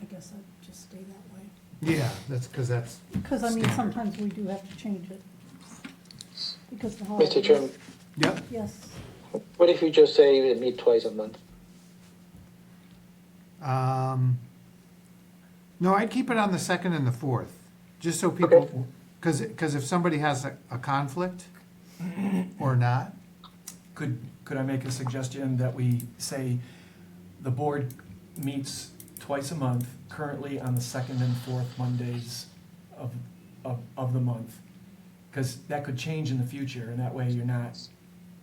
I guess I'd just stay that way. Yeah, that's, because that's, Because I mean, Standard. sometimes we do have to change it. Because the holidays. Mr. Chairman, yep, Yes, what if you just say we meet twice a month? um, no, I'd keep it on the second and the fourth, just so people, because, because if somebody has a, a conflict or not, Could, could I make a suggestion that we say the board meets twice a month, currently on the second and fourth Mondays of, of, of the month? Because that could change in the future, and that way you're not,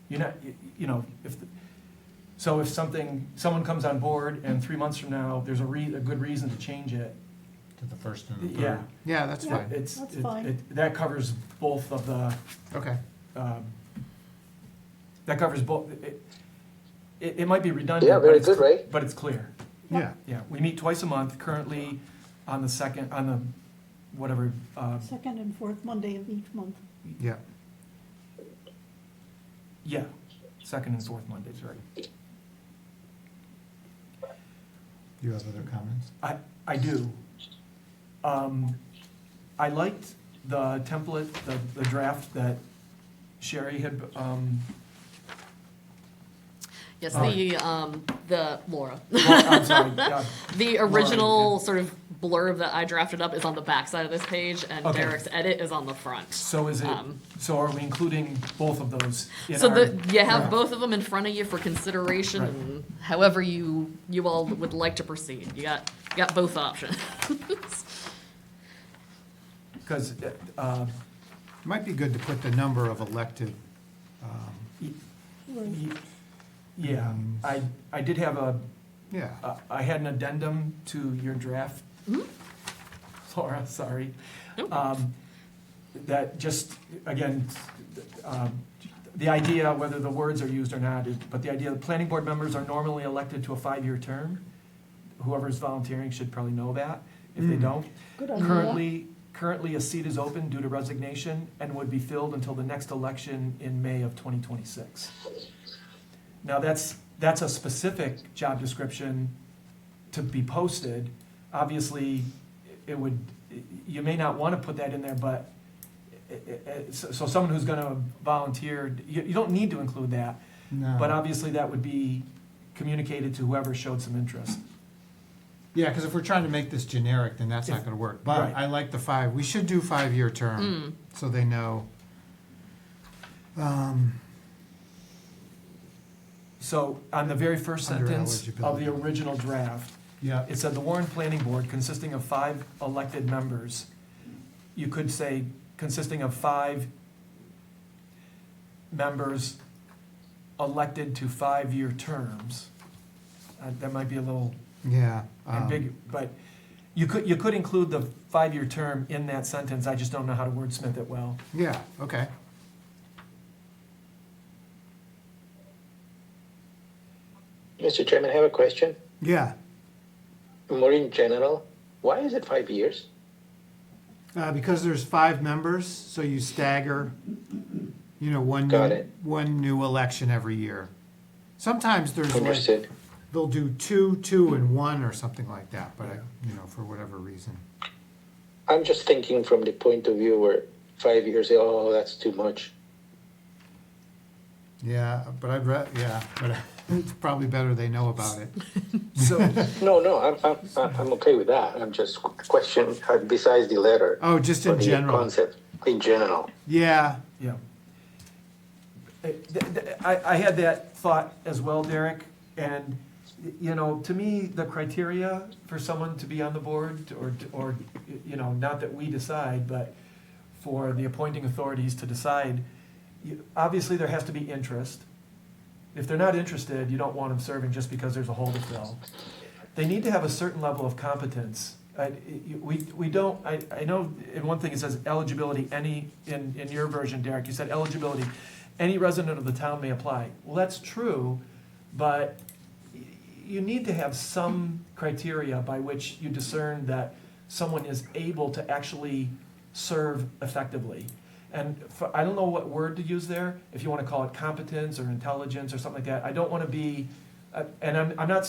you're not, you- you know, if, the- so if something, someone comes on board and three months from now, there's a re, a good reason to change it, To the first and the third. yeah. yeah, that's Yeah. fine, It's, That's it- fine. it- that covers both of the, okay. um, that covers both, it, it, it might be redundant. Yeah, but very it's- good, right? But it's clear, Yeah, yeah, we meet twice a month, currently on the second, on the, whatever, uh, second and fourth Monday of each month. yeah, yeah, second and fourth Mondays, right? Do you have other comments? I, I do. Um, I liked the template, the, the draft that Sherry had, um, Yes, All the, um, the, Laura. well, I'm sorry, yeah, The Laura, original yeah. sort of blurb that I drafted up is on the back side of this page, and Okay. Derek's edit is on the front. So is it, Um, so are we including both of those in our? So the, you have draft? both of them in front of you for consideration, Right. and however you, you all would like to proceed. You got, you got both options. Because, uh, might be good to put the number of elected, y- Right. y- yeah, um, I, I did have a, yeah, I- I had an addendum to your draft. Laura, sorry. Hmm? Nope. Um, That just, again, um, the idea, whether the words are used or not, is- but the idea, the planning board members are normally elected to a five-year term. Whoever's volunteering should probably know that. If they Hmm. don't, Good idea. Currently, currently a seat is open due to resignation and would be filled until the next election in May of 2026. Now, that's, that's a specific job description to be posted. Obviously, it would, you may not want to put that in there, but, it- it- it- so so someone who's going to volunteer, you, you don't need to include that, No. but obviously that would be communicated to whoever showed some interest. yeah, because if we're trying to make this generic, then that's not gonna work, but Right. I like the five, we should do five-year term, so they know. So on the very first Under sentence of eligibility. the original draft, Yeah, it said the Warren Planning Board consisting of five elected members. You could say consisting of five members elected to five-year terms. Uh, That might be a little yeah. um, ambiguous, but you could, you could include the five-year term in that sentence. I just don't know how to wordsmith it well. Yeah, okay. Mr. Chairman, I have a question, Yeah, more in general. Why is it five years? uh, because there's five members, so you stagger, you know, one, Got new- it. one new election every year. Sometimes there's like, Understood. they'll do two, two, and one, or something like that, but I, you know, for whatever reason. I'm just thinking from the point of view where five years, oh, that's too much. Yeah, but I'd re, yeah, but it's probably better they know about it. So, No, no, I'm, I'm, I'm I'm okay with that. I'm just questioning, uh, besides the letter. Oh, just in or the general, Concept, in general. yeah, Yeah. Uh, th- th- I, I had that thought as well, Derek, and, y- you know, to me, the criteria for someone to be on the board, or, or, you know, not that we decide, but for the appointing authorities to decide, you- obviously, there has to be interest. If they're not interested, you don't want them serving just because there's a hole to fill. They need to have a certain level of competence. I- I- We, we don't, I, I know in one thing it says eligibility, any, in, in your version, Derek, you said eligibility, any resident of the town may apply. Well, that's true, but y- you need to have some criteria by which you discern that someone is able to actually serve effectively. And for, I don't know what word to use there, if you want to call it competence or intelligence or something like that. I don't want to be, uh, and I'm, I'm not